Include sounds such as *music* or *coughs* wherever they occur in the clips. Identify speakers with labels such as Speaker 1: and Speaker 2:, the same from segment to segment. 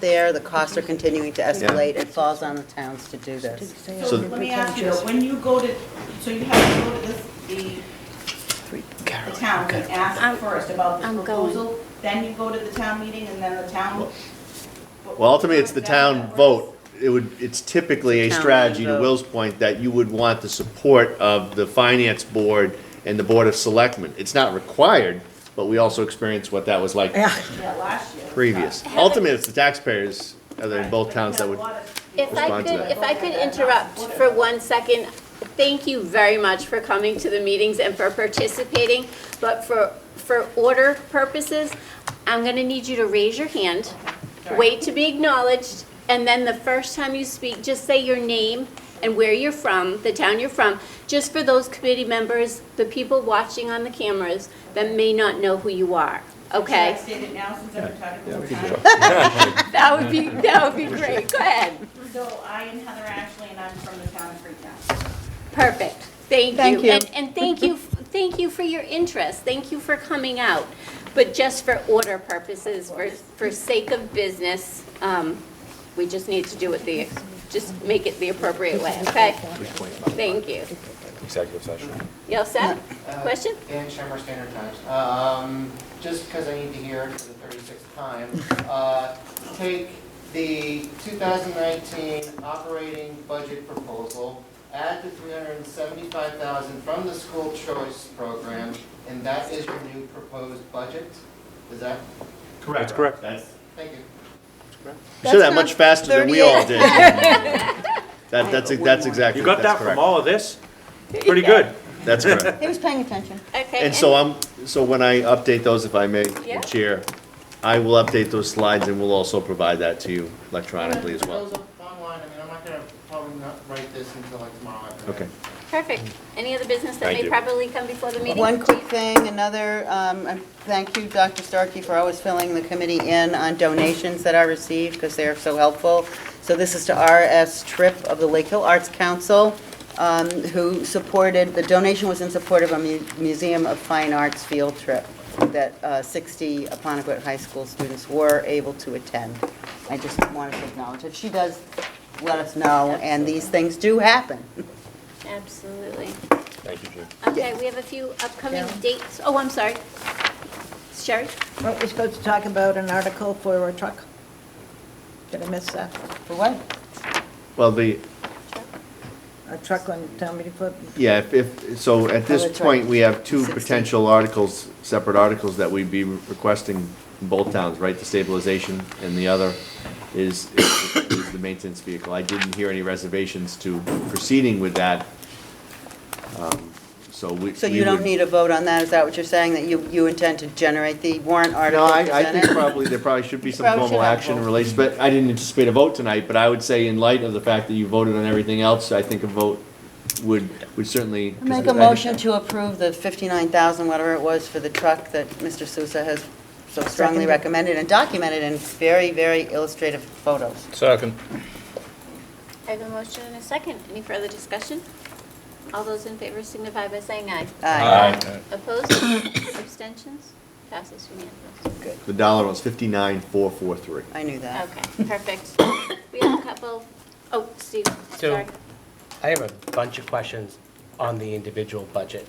Speaker 1: there, the costs are continuing to escalate, it falls on the towns to do this.
Speaker 2: So let me ask you, though, when you go to, so you have to go to this, the, the town and
Speaker 3: I'm-
Speaker 2: ask first about
Speaker 3: I'm
Speaker 2: the
Speaker 3: going.
Speaker 2: proposal, then you go to the town meeting and then the town?
Speaker 4: Well, ultimately, it's the town vote. It would, it's typically a
Speaker 1: Town
Speaker 4: strategy, to
Speaker 1: vote.
Speaker 4: Will's point, that you would want the support of the finance board and the board of selectmen. It's not required, but we also experienced what that was like
Speaker 2: Yeah, last year.
Speaker 4: previous. Ultimately, it's the taxpayers, other than both towns that would,
Speaker 3: If I
Speaker 4: Respond to
Speaker 3: could,
Speaker 4: that.
Speaker 3: if I could interrupt for one second, thank you very much for coming to the meetings and for participating, but for, for order purposes, I'm gonna need you to raise your hand, wait to be acknowledged, and then the first time you speak, just say your name and where you're from, the town you're from, just for those committee members, the people watching on the cameras that may not know who you are,
Speaker 2: Should I
Speaker 3: okay?
Speaker 2: state it now since I've been talking over time?
Speaker 3: That would be, that would be great, go ahead.
Speaker 2: So I am Heather Ashley and I'm from the town of Freetown.
Speaker 3: Perfect, thank you.
Speaker 1: Thank you.
Speaker 3: And, and thank you, thank you for your interest, thank you for coming out. But just for order purposes, for, for sake of business, um, we just need to do it the, just make it the appropriate way, okay? Thank you.
Speaker 5: Executive session.
Speaker 3: You all set? Question?
Speaker 6: Dan Shammer, Standard Times. Um, Just because I need to hear it for the 36th time, uh, take the 2019 operating budget proposal, add the 375,000 from the school choice program, and that is your new proposed budget? Is that,
Speaker 5: That's correct.
Speaker 4: that's,
Speaker 6: thank you.
Speaker 4: you said that much faster than we all did. That, that's, that's exactly,
Speaker 5: You got
Speaker 4: that's
Speaker 5: that from
Speaker 4: correct.
Speaker 5: all of this? Pretty good.
Speaker 4: That's correct.
Speaker 1: He was paying attention.
Speaker 3: Okay.
Speaker 4: And so I'm, so when I update those, if I may,
Speaker 3: Yeah.
Speaker 4: Chair, I will update those slides and we'll also provide that to you electronically as well.
Speaker 6: Proposal Online, I mean, I'm not going to probably not write this until like tomorrow afternoon.
Speaker 4: Okay.
Speaker 3: Perfect. Any other business that
Speaker 5: Thank
Speaker 3: may
Speaker 5: you.
Speaker 3: probably come before the meeting?
Speaker 1: One quick thing, another, um, I thank you, Dr. Starkey, for always filling the committee in on donations that I receive, because they are so helpful. So this is to RS Tripp of the Lake Hill Arts Council, um, who supported, the donation was in support of a mu- Museum of Fine Arts field trip that uh, 60 Aponequid High School students were able to attend. I just wanted to acknowledge it. She does let us know, and these things do happen.
Speaker 3: Absolutely.
Speaker 5: Thank you, Jim.
Speaker 3: Okay, we have a few upcoming dates. Oh, I'm sorry. Sherry?
Speaker 7: Weren't we supposed to talk about an article for a truck? Did I miss that?
Speaker 1: For what?
Speaker 4: Well, the,
Speaker 7: A truck on town meeting floor?
Speaker 4: yeah, if, if, so at this
Speaker 1: that's
Speaker 4: point,
Speaker 1: right.
Speaker 4: we have two
Speaker 1: 16.
Speaker 4: potential articles, separate articles that we'd be requesting in both towns, right? The stabilization and the other is, is the maintenance vehicle. I didn't hear any reservations to proceeding with that. Um, So we.
Speaker 1: So
Speaker 4: we
Speaker 1: you don't
Speaker 4: would-
Speaker 1: need a vote on that, is that what you're saying, that you, you intend to generate the warrant
Speaker 4: No,
Speaker 1: article
Speaker 4: I, I think
Speaker 1: presented?
Speaker 4: probably, there probably should be some
Speaker 1: Probably should
Speaker 4: formal
Speaker 1: have a
Speaker 4: action
Speaker 1: vote.
Speaker 4: related, but I didn't anticipate a vote tonight, but I would say in light of the fact that you voted on everything else, I think a vote would, would certainly.
Speaker 1: Make a motion to approve the 59,000, whatever it was, for the truck that Mr. Sousa has so strongly
Speaker 7: Seconded.
Speaker 1: recommended and documented in very, very illustrative photos.
Speaker 8: Second.
Speaker 3: I have a motion and a second. Any further discussion? All those in favor signify by saying aye.
Speaker 1: Aye.
Speaker 3: Opposed? *coughs* Abstentions? Passes unanimously.
Speaker 4: The dollar was fifty-nine, four, four, three.
Speaker 1: I knew that.
Speaker 3: Okay, perfect. We have a couple, oh, Steve,
Speaker 8: So-
Speaker 3: sorry.
Speaker 9: I have a bunch of questions on the individual budget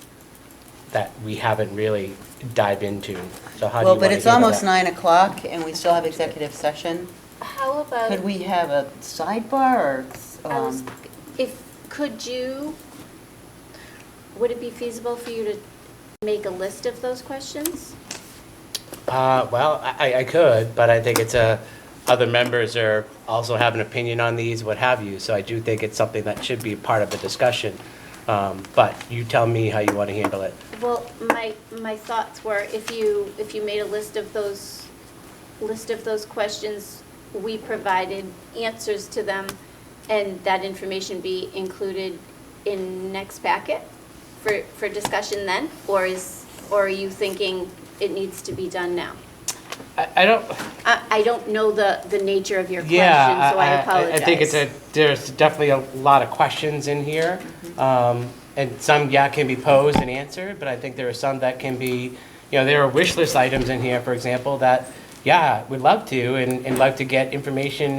Speaker 9: that we haven't really dived into. So how
Speaker 1: Well,
Speaker 9: do you want to
Speaker 1: but it's
Speaker 9: handle
Speaker 1: almost
Speaker 9: that?
Speaker 1: 9 o'clock and we still have executive session.
Speaker 3: How
Speaker 1: Could
Speaker 3: about,
Speaker 1: we have a sidebar or?
Speaker 3: Oh. I was,
Speaker 1: um,
Speaker 3: if, could you, would it be feasible for you to make a list of those questions?
Speaker 9: Uh, well, I, I- I could, but I think it's a, other members are also have an opinion on these, what have you. So I do think it's something that should be part of the discussion. Um, but you tell me how you want to handle it.
Speaker 3: Well, my, my thoughts were if you, if you made a list of those, list of those questions, we provided answers to them, and that information be included in next packet for, for discussion then? Or is, or are you thinking it needs to be done now?
Speaker 8: I, I don't,
Speaker 3: I, I don't know the, the nature of your question, so
Speaker 9: yeah,
Speaker 3: I apologize. Mm-hmm.
Speaker 9: I think it's a, there's definitely a lot of questions in here. Um, and some, yeah, can be posed and answered, but I think there are some that can be, you know, there are wish list items in here, for example, that, yeah, we'd love to, and, and love to get information